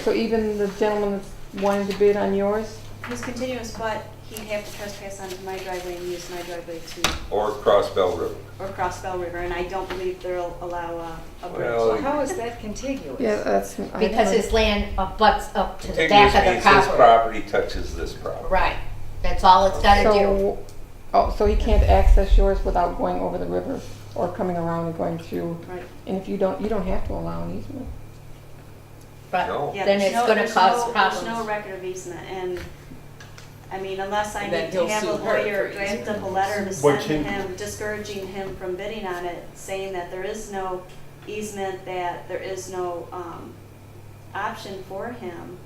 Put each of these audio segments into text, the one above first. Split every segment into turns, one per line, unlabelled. So even the gentleman that's wanting to bid on yours?
He's continuous, but he'd have to trespass onto my driveway and use my driveway to,
or cross Bell River.
or cross Bell River, and I don't believe they'll allow a, a
Well,
bridge.
How is that contiguous?
Yeah, uh, that's. I
Because
don't-
his land abuts up to the
Contiguous
back of the
means this
property.
property touches this property.
Right, that's all it's gotta do.
So, oh, so he can't access yours without going over the river or coming around and going through?
Right.
And if you don't, you don't have to allow an easement.
But
No.
Yeah,
then
there's
it's
no-
gonna
there's
cause
no- There's no
problems.
record of easement, and, I mean, unless I
And then
need to
he'll
have a
sue her
lawyer
for
draft
easement.
up a letter to
What
send
can-
him, discouraging him from bidding on it, saying that there is no easement, that there is no, um, option for him.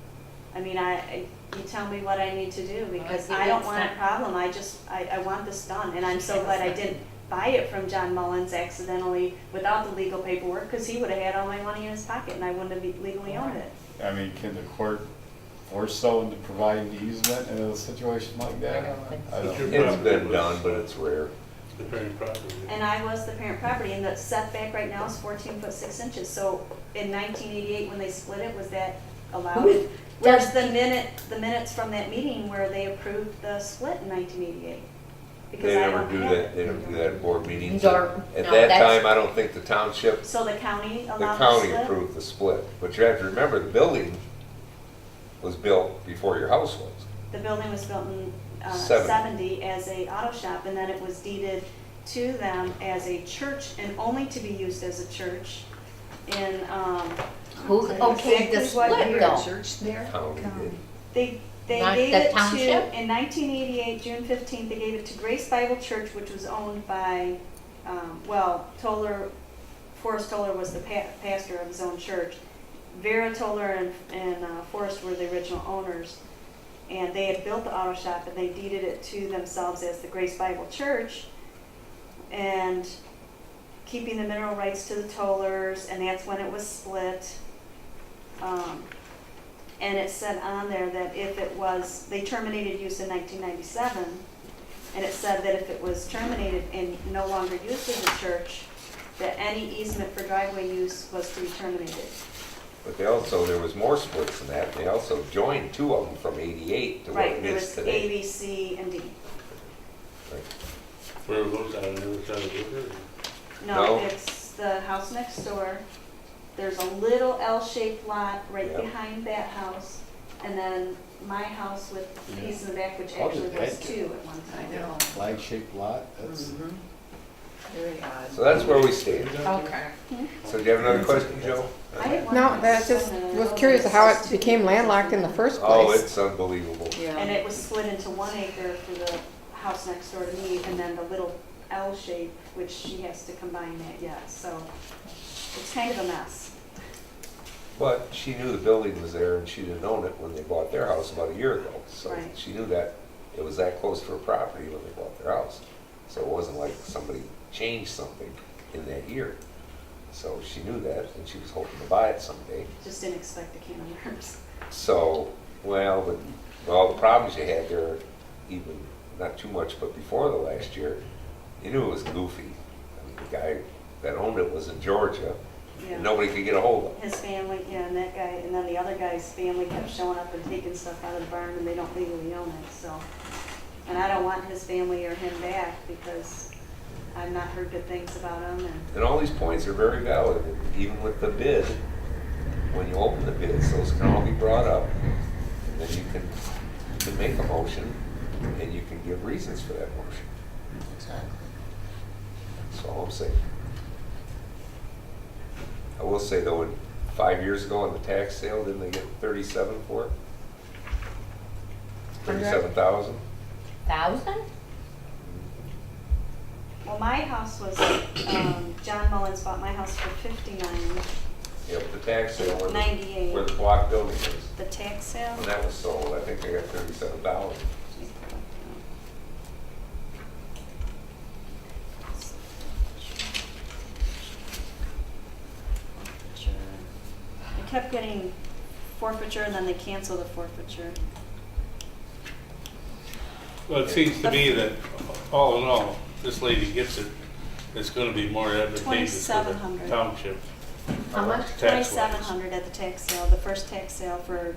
I mean, I, I- you tell me what I need to do, because
think
I don't
that's
want a
not-
problem, I just, I, I want this done, and I'm so glad I didn't buy it from John Mullins accidentally without the legal paperwork, because he would have had all my money in his pocket, and I wouldn't have legally owned it.
I mean, can the court force someone to provide an easement in a situation like that? I don't
But you're-
It's been done, but it's rare.
the parent property.
And I was the parent property, and the setback right now is fourteen foot six inches, so in nineteen eighty-eight, when they split it, was that allowed?
Who
Where's
does-
the minute, the minutes from that meeting where they approved the split in nineteen eighty-eight?
They never do that, they never do that at board meetings.
Nor-
At
no,
that
that's-
time, I don't think the township,
So the county
the
allowed the
county
split?
approved the split. But you have to remember, the building was built before your house was.
The building was built in uh,
Seventy.
seventy as a auto shop, and then it was deeded to them as a church and only to be used as a church in, um,
Who okayed the
Exactly what
split
year,
though?
Church there?
County did.
They, they
Not
gave
the
it
township?
to, in nineteen eighty-eight, June fifteenth, they gave it to Grace Bible Church, which was owned by, um, well, Toller, Forrest Toller was the pa- pastor of his own church. Vera Toller and, and uh, Forrest were the original owners. And they had built the auto shop and they deeded it to themselves as the Grace Bible Church. And keeping the mineral rights to the Tollers, and that's when it was split. Um, and it said on there that if it was, they terminated use in 1997, and it said that if it was terminated and no longer used as a church, that any easement for driveway use was to be terminated.
But they also, there was more splits than that. They also joined two of them from eighty-eight to what
Right,
it
there
is
was
today.
A, B, C, and D.
Where were those out on the other side of the river?
No,
No.
it's the house next door. There's a little L-shaped lot right
Yeah.
behind that house, and then my house with a piece in the back, which
How did
actually was
that get-
two at one time.
I know.
Flag-shaped lot, that's,
Mhm. Very odd.
So that's where we stand.
Okay.
So do you have another question, Joe?
I had one
No,
house
that just
on the
was
road
curious
that's
how
just
it
two
became
acres or
landlocked in the
something.
first
Oh,
place.
it's unbelievable.
And
Yeah.
it was split into one acre for the house next door to me, and then the little L shape, which she has to combine that, yeah, so it's kind of a mess.
But she knew the building was there and she didn't own it when they bought their house about a year ago. So
Right.
she knew that it was that close to her property when they bought their house. So it wasn't like somebody changed something in that year. So she knew that and she was hoping to buy it someday.
Just didn't expect the can of worms.
So, well, but with all the problems you had there, even, not too much, but before the last year, you knew it was goofy. I mean, the guy that owned it was in Georgia
Yeah.
and nobody could get a hold of him.
His family, yeah, and that guy, and then the other guy's family kept showing up and taking stuff out of the barn, and they don't legally own it, so. And I don't want his family or him back, because I've not heard good things about him, and
And all these points are very valid, and even with the bid. When you open the bids, those can all be brought up, and then you can, you can make a motion, and you can give reasons for that motion. That's all I'm saying. I will say though, in- five years ago on the tax sale, didn't they get thirty-seven for it? Thirty-seven thousand?
Thousand?
Well, my house was, um, John Mullins bought my house for fifty-nine,
Yep, the tax sale where the,
Ninety-eight.
where the block building is.
the tax sale.
When that was sold, I think they got thirty-seven thousand.
I kept getting forfeiture and then they canceled the forfeiture.
Well, it seems to me that all in all, this lady gets it, it's gonna be more advantageous for the
2700.
township
How much?
tax wise.
Twenty-seven hundred at the tax sale, the first tax sale for